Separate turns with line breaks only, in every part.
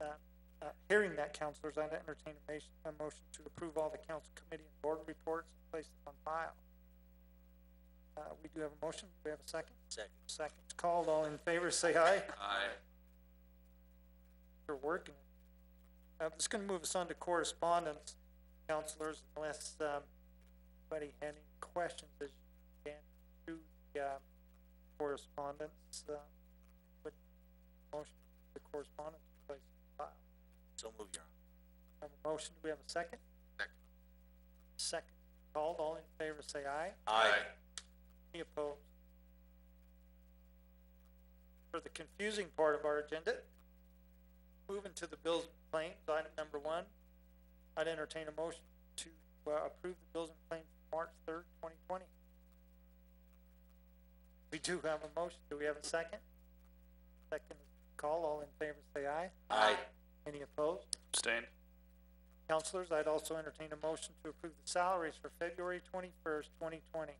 uh, Hearing that, counselors, I'd entertain a motion, a motion to approve all the council committee and board reports and place them on file. Uh, we do have a motion. Do we have a second?
Second.
Second's called. All in favor, say aye.
Aye.
You're working. Uh, this is gonna move us on to correspondence, counselors, unless, um, anybody had any questions as you can through the, uh, correspondence, uh, but motion, the correspondence, place file.
So move, Your Honor.
Have a motion, do we have a second?
Second.
Second, called, all in favor, say aye.
Aye.
Any opposed? For the confusing part of our agenda, moving to the bills and claims, item number one, I'd entertain a motion to, uh, approve the bills and claims for March third, twenty twenty. We do have a motion, do we have a second? Second call, all in favor say aye.
Aye.
Any opposed?
Abstain.
Counselors, I'd also entertain a motion to approve the salaries for February twenty-first, twenty twenty.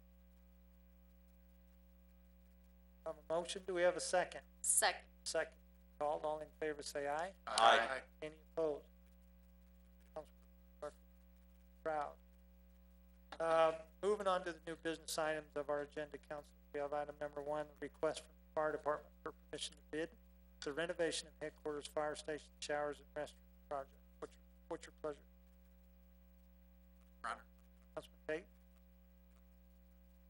Have a motion, do we have a second?
Second.
Second, called, all in favor say aye.
Aye.
Any opposed? Councilman Proud. Uh, moving on to the new business items of our agenda, council, we have item number one, request from the fire department for permission to bid the renovation of headquarters, fire station, showers and restroom project. What's, your- what's your pleasure?
Your Honor.
Councilman Tate?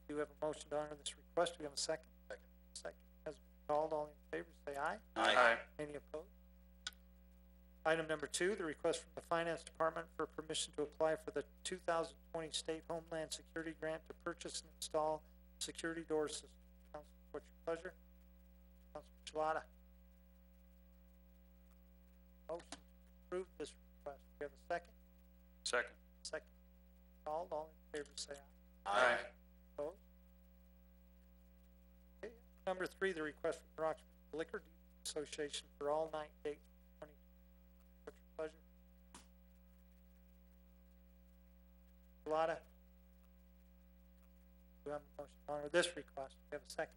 Do you have a motion to honor this request? Do we have a second? Second. Second has been called. All in favor, say aye.
Aye.
Any opposed? Item number two, the request from the Finance Department for permission to apply for the two thousand twenty State Homeland Security Grant to purchase and install security door system. Council, what's your pleasure? Councilman Shalata? Motion to approve this request. Do we have a second?
Second.
Second. Called, all in favor, say aye.
Aye.
Opposed? Okay, Number three, the request from the Roxbury Liquor Association for all night dates, twenty, what's your pleasure? Shalata? Do I have a motion to honor this request? Do we have a second?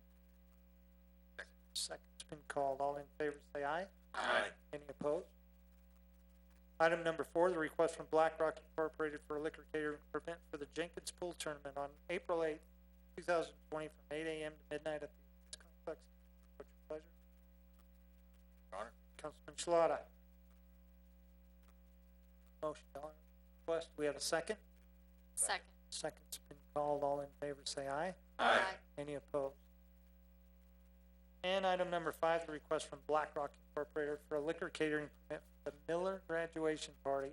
Second's been called. All in favor, say aye.
Aye.
Any opposed? Item number four, the request from Black Rock Incorporated for a liquor catering permit for the Jenkins Pool Tournament on April eighth, two thousand twenty, from eight AM to midnight at the Olympics complex. What's your pleasure?
Your Honor.
Councilman Shalata? Motion to honor the request. We have a second?
Second.
Second's been called. All in favor, say aye. Any opposed? And item number five, the request from Black Rock Incorporated for a liquor catering permit for the Miller graduation party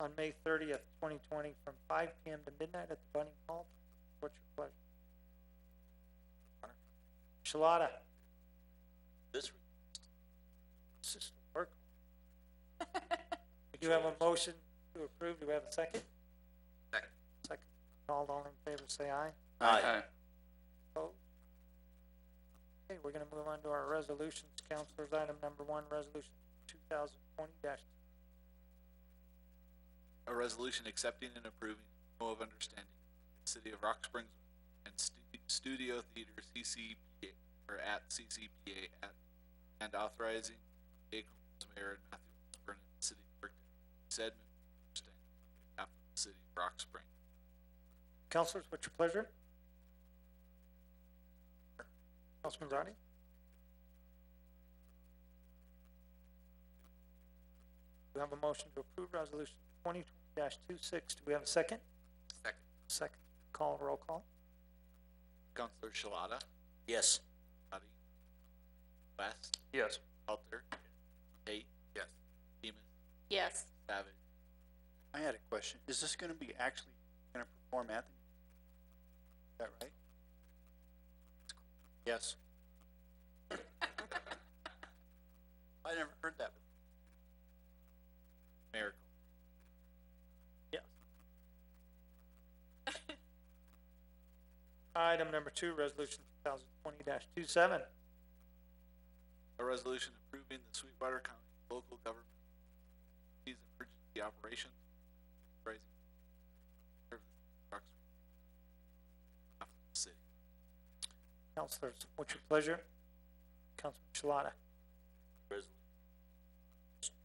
on May thirtieth, twenty twenty, from five PM to midnight at the Bunny Hall. What's your pleasure? Shalata,
This,
assistant clerk. We do have a motion to approve. Do we have a second?
Second.
Second. All, all in favor, say aye.
aye.
Opposed? Okay, we're gonna move on to our resolutions, counselors, item number one, resolution two thousand twenty dash,
a resolution accepting and approving memo of understanding with the City of Rock Springs and Stu- Studio Theater CCPA, or at CCPA, at, and authorizing Jake Holmes, Mayor and Matthew Burnett, City Clerk, to said memo of understanding on behalf of the City of Rock Springs.
counselors, what's your pleasure? Councilman Zardi? We have a motion to approve resolution twenty twenty dash two six, do we have a second?
Second.
Second, call, roll call,
Counselor Shalata,
Yes.
Hadi, West,
Yes.
Alter, Tate. Yes. Demus,
Yes.
Savage.
I had a question. Is this gonna be actually gonna perform at the? Is that right? Yes. I never heard that. before.
Miracle.
item number two, resolution two thousand twenty dash two seven,
A resolution approving the Sweetwater County Local Government Agency's Emergency Operations. Raising. City.
counselors, what's your pleasure? Councilman Shalata?